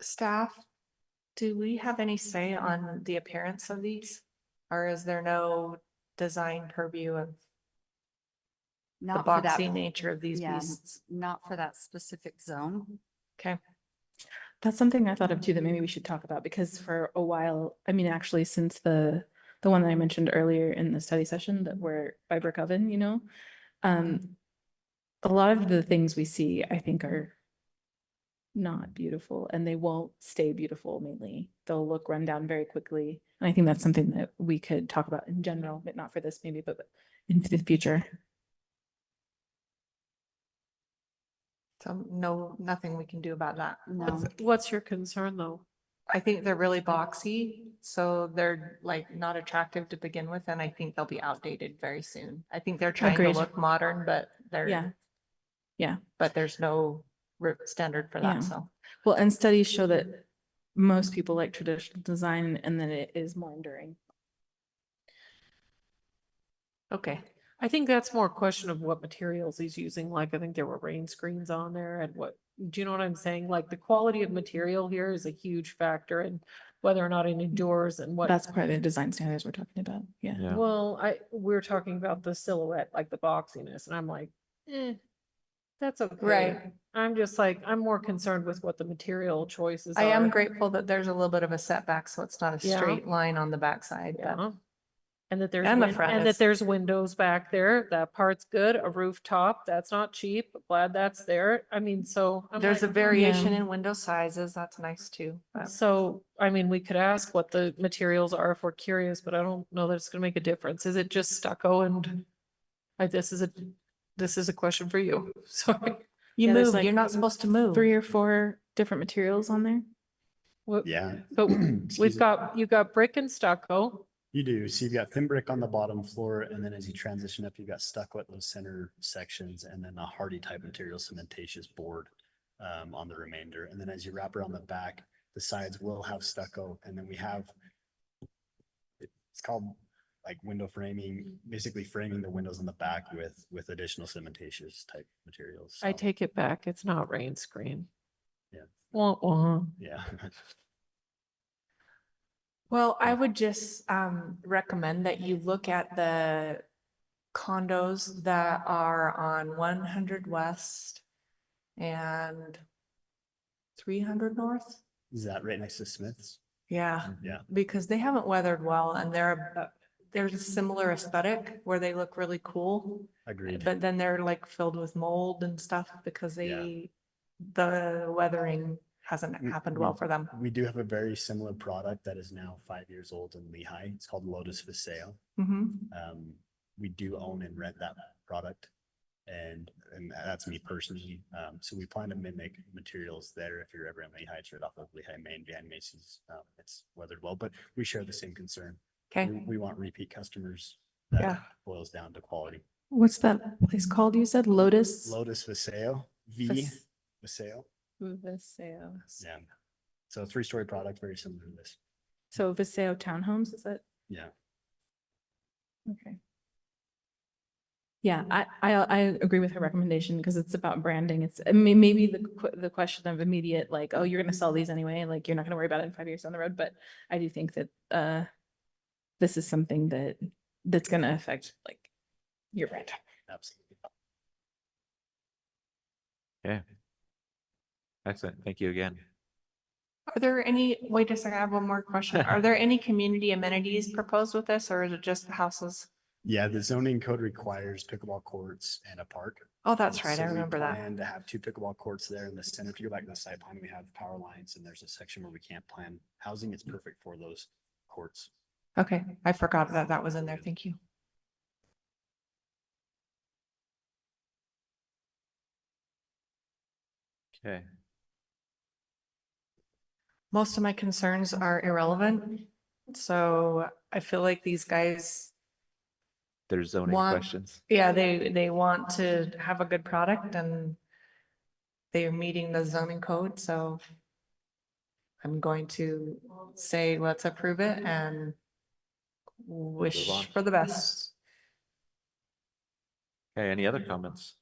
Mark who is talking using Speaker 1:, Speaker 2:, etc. Speaker 1: staff, do we have any say on the appearance of these? Or is there no design purview of the
Speaker 2: Not for that,
Speaker 1: boxy nature of these
Speaker 2: yeah.
Speaker 1: beasts?
Speaker 2: not for that specific zone.
Speaker 3: That's something I thought of too, that maybe we should talk about, because for a while, I mean, actually, since the, the one that I mentioned earlier in the study session that were by brick oven, you know? Um, a lot of the things we see, I think are not beautiful and they won't stay beautiful mainly. They'll look run down very quickly. And I think that's something that we could talk about in general, but not for this maybe, but but in the future.
Speaker 1: So no, nothing we can do about that.
Speaker 2: No,
Speaker 4: What's your concern though?
Speaker 1: I think they're really boxy, so they're like not attractive to begin with, and I think they'll be outdated very soon. I think they're trying to
Speaker 3: Agreed.
Speaker 1: look modern, but
Speaker 3: Yeah.
Speaker 1: they're,
Speaker 3: Yeah.
Speaker 1: but there's no re- standard for
Speaker 3: Yeah.
Speaker 1: that, so.
Speaker 3: Well, and studies show that most people like traditional design and that it is more enduring.
Speaker 4: Okay, I think that's more a question of what materials he's using. Like, I think there were rain screens on there and what, do you know what I'm saying? Like, the quality of material here is a huge factor in whether or not it endures and what.
Speaker 3: That's part of the design standards we're talking about. Yeah.
Speaker 5: Yeah.
Speaker 4: Well, I, we're talking about the silhouette, like the boxiness, and I'm like, eh, that's okay. I'm just like, I'm more concerned with what the material choices are.
Speaker 1: I am grateful that there's a little bit of a setback, so it's not a
Speaker 4: Yeah.
Speaker 1: straight line on the backside, but
Speaker 4: Yeah. And that there's,
Speaker 1: And the
Speaker 4: win-
Speaker 1: front
Speaker 4: and that
Speaker 1: is-
Speaker 4: there's windows back there. That part's good. A rooftop, that's not cheap. Glad that's there. I mean, so. I'm
Speaker 1: there's a
Speaker 3: "Mm,
Speaker 4: like,
Speaker 1: variation in window sizes. That's nice too. but-
Speaker 4: So, I mean, we could ask what the materials are if we're curious, but I don't know that it's gonna make a difference. Is it just stucco and? I, this is a, this is a question for you. Sorry.
Speaker 1: You
Speaker 3: Yeah, there's
Speaker 1: move,
Speaker 3: like
Speaker 1: you're not supposed to move.
Speaker 3: Three or four different materials on there.
Speaker 4: What-
Speaker 5: Yeah.
Speaker 4: But
Speaker 5: Excuse
Speaker 4: we've
Speaker 5: me.
Speaker 4: got, you got brick and stucco.
Speaker 5: You do. So you've got thin brick on the bottom floor and then as you transition up, you've got stucco at those center sections and then a hardy type material cementatious board um, on the remainder. And then as you wrap around the back, the sides will have stucco and then we have it's called like window framing, basically framing the windows on the back with, with additional cementatious type materials.
Speaker 4: I
Speaker 5: So,
Speaker 4: take it back. It's not rain screen.
Speaker 5: Yeah.
Speaker 4: Wah, wah.
Speaker 5: Yeah.
Speaker 1: Well, I would just um recommend that you look at the condos that are on one hundred west and three hundred north.
Speaker 5: Is that right next to Smith's?
Speaker 4: Uh,
Speaker 1: Yeah,
Speaker 5: Yeah.
Speaker 1: because they haven't weathered well and they're a- there's a similar aesthetic where they look really cool.
Speaker 5: Agreed.
Speaker 1: But then they're like filled with mold and stuff because
Speaker 5: Yeah.
Speaker 1: they, the weathering hasn't
Speaker 5: Mm,
Speaker 1: happened
Speaker 5: mm.
Speaker 1: well for them.
Speaker 5: We do have a very similar product that is now five years old in Lehigh. It's called Lotus for Sale.
Speaker 1: Mhm.
Speaker 5: Um, we do own and rent that product. And, and that's me personally. Um, so we plan to mimic materials there if you're ever in Lehigh, it's right off of Lehigh Main, Van Macy's. Um, it's weathered well, but we share the same concern. We,
Speaker 1: Okay,
Speaker 5: Mm, we want repeat customers.
Speaker 1: Yeah.
Speaker 5: That boils down to quality.
Speaker 3: What's that place called? You said Lotus?
Speaker 5: Lotus for Sale, V for Sale.
Speaker 3: Viseo.
Speaker 5: Yeah. So three-story product, very similar to this.
Speaker 3: So Viseo Townhomes, is that?
Speaker 5: Yeah.
Speaker 3: Okay. Yeah, I, I, I agree with her recommendation because it's about branding. It's, I mean, maybe the, que- the question of immediate, like, oh, you're gonna sell these anyway, like, you're not gonna worry about it in five years down the road, but I do think that, uh, this is something that, that's gonna affect, like, your brand.
Speaker 5: Absolutely.
Speaker 6: Excellent. Thank you again.
Speaker 1: are there any, wait a second, I have one more question. Are there any community amenities proposed with this or is it just the houses?
Speaker 5: Yeah, the zoning code requires pickleball courts and a park.
Speaker 1: Oh, that's right, I
Speaker 5: So we
Speaker 1: remember that.
Speaker 5: plan to have two pickleball courts there in the center. If you go back to the site plan, we have power lines and there's a section where we can't plan housing.
Speaker 1: Mm.
Speaker 5: It's perfect for those courts.
Speaker 1: Okay, I forgot that that was in there, thank you.
Speaker 6: Okay.
Speaker 1: Most of my concerns are irrelevant, so I feel like these guys
Speaker 6: There's zoning
Speaker 1: One-
Speaker 6: questions.
Speaker 1: Yeah, they, they want to have a good product and they are meeting the zoning code, so I'm going to say, let's approve it and wish
Speaker 6: on.
Speaker 1: for the best.
Speaker 6: Okay, any other comments?